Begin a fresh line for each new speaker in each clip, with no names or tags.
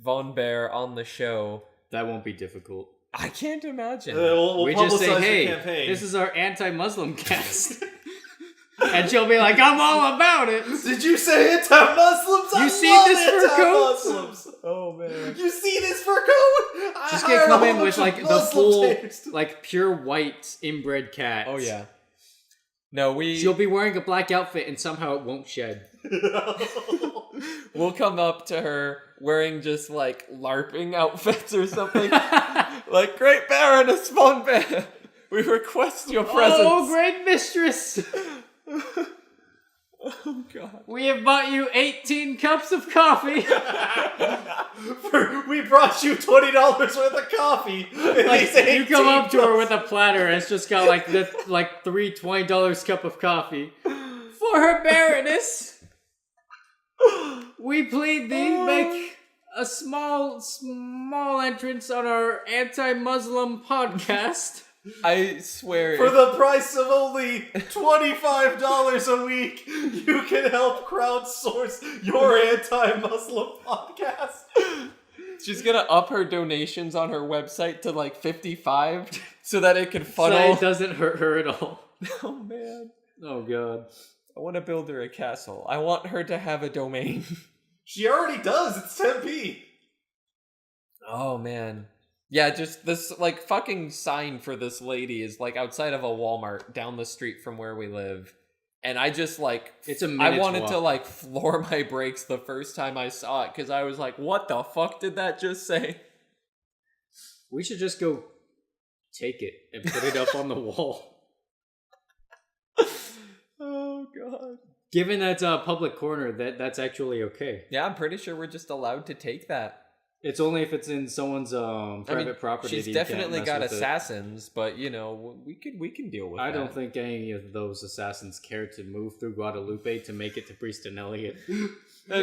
Von Bear on the show.
That won't be difficult.
I can't imagine.
Uh, we'll, we'll
we
publicize
just say,
the
hey,
campaign.
this is our anti-Muslim cast, and she'll be like, I'm all about it.
Did you say anti-Muslims?
You
I
see
love
this fur coat?
anti-Muslims.
oh man.
You see this fur coat? I
Just
hired
get
a
come
whole
in with
bunch
like
of
the
Muslim
full,
taste.
like pure white inbred cat.
Oh yeah. No, we
She'll be wearing a black outfit and somehow it won't shed.
we'll come up to her wearing just like LARPing outfits or something. like Great Baron a spawn bear. We request your presence.
Oh, great mistress!
Oh, god.
We have bought you 18 cups of coffee.
For- we brought you twenty dollars worth of coffee. and
Like,
these
you come
18
up to her with a platter and it's just got like the like three twenty dollars cup of coffee. For her baroness, we plead thee
Uh.
make a small small entrance on our anti-Muslim podcast.
I swear
For
if-
the price of only $25 a week, you can help crowdsource your anti Muslim podcast.
she's gonna up her donations on her website to like 55 so that it can
So
funnel.
it doesn't hurt her at all.
oh man.
Oh god.
I want to build her a castle. I want her to have a domain.
She already does, it's 10p.
Oh man. Yeah, just this like fucking sign for this lady is like outside of a Walmart down the street from where we live. And I just like
It's a
I
minute's
wanted
walk.
to like floor my brakes the first time I saw it cuz I was like what the fuck did that just say?
We should just go take it and put it up on the wall.
Oh god.
Given that's a public corner, that that's actually okay.
Yeah, I'm pretty sure we're just allowed to take that.
It's only if it's in someone's um,
I
private
mean,
property. that
She's
you can't
definitely
mess
got
with it.
assassins, but you know, w- we could we can deal with
I
that.
don't think any of those assassins care to move through Guadalupe to make it to Prieston Elliot.
And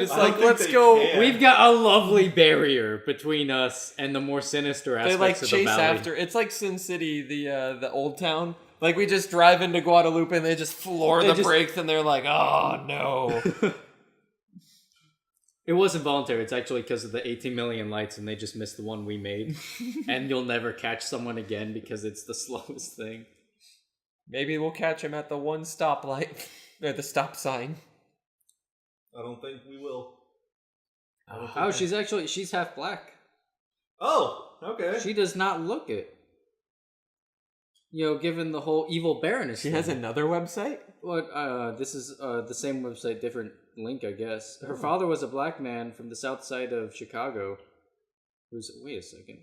it's
I don't
like
think
let's
they
go
can. Yeah.
We've got a lovely barrier between us and the more sinister
they
aspects
like
of the
chase
valley.
after. It's like Sin City, the uh, the old town. Like we just drive into Guadalupe and they just floor
They
the
just-
brakes and they're like, oh no.
It wasn't voluntary. It's actually because of the 18 million lights, and they just missed the one we made. and you'll never catch someone again because it's the slowest thing.
Maybe we'll catch him at the one stoplight or the stop sign.
I don't think we will. I don't think
Oh,
I-
she's actually she's half black.
Oh, okay.
She does not look it. You know, given the whole evil baroness.
She
thing.
has another website.
What? Uh, this is uh, the same website, different link, I guess. Her
Hmm.
father was a black man from the south side of Chicago. Who's? Wait a second.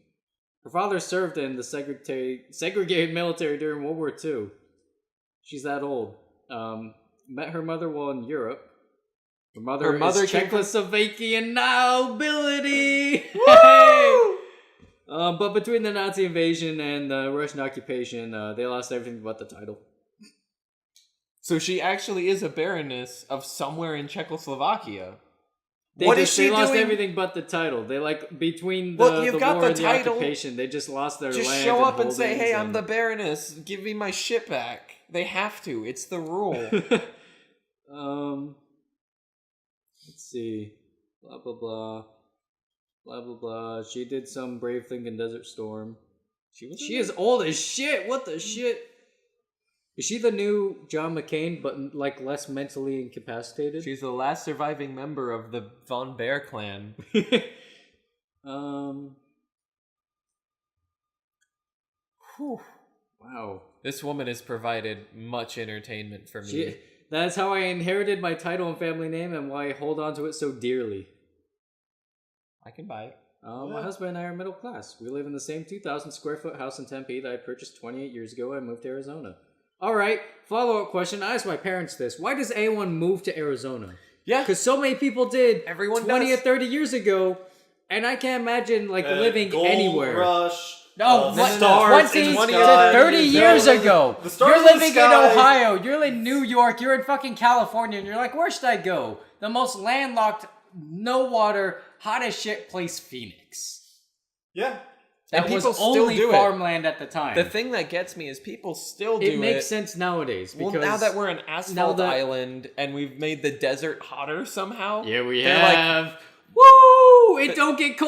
Her father served in the segregated segregated military during World War II. She's that old. Um, met her mother while in Europe. Her mother,
Her mother
is
came from-
Czechoslovakian nobility. Hey!
Woo!
Um, but between the Nazi invasion and the Russian occupation, uh, they lost everything but the title.
So she actually is a baroness of somewhere in Czechoslovakia.
They
What
just,
is
they
she
lost
doing?
everything but the title. They like between the,
Well, you've
the
got
war
the
and the
title.
occupation, they just lost their
Just
land.
show up and say,
holdings
"Hey, I'm the
and-
baroness. Give me my shit back." They have to. It's the rule.
um, let's see, blah blah blah, blah blah blah. She did some brave thing in Desert Storm.
she was.
She is old as shit. What the shit? Is she the new John McCain, but like less mentally incapacitated?
She's the last surviving member of the Von Bear clan.
um. whew, Wow.
This woman has provided much entertainment for me.
She, that's how I inherited my title and family name and why I hold on to it so dearly.
I can buy it.
Uh, My
Yeah.
husband and I are middle class. We live in the same 2,000 square foot house in Tempe that I purchased 28 years ago when I moved to Arizona. All right, follow up question. I asked my parents this. Why does anyone move to Arizona?
Yeah.
Because so many people did
Everyone
20 or
does.
30 years ago, and I can't imagine like
Uh,
living
Gold
anywhere.
Rush.
No,
uh,
what-
the stars
20
in the
to
sky.
30 years
No,
ago.
The stars
You're
in the
living in
sky.
Ohio. You're in New York. You're in fucking California. And you're like, where should I go? The most landlocked, no water, hot as shit place, Phoenix.
Yeah.
And
That was
people still
only
do it.
farmland at the time.
The thing that gets me is people still do
it makes
it.
sense nowadays
Well,
because
now that we're an asphalt
that-
island and we've made the desert hotter somehow.
yeah, we
they're like,
have. Woo! It don't get cold.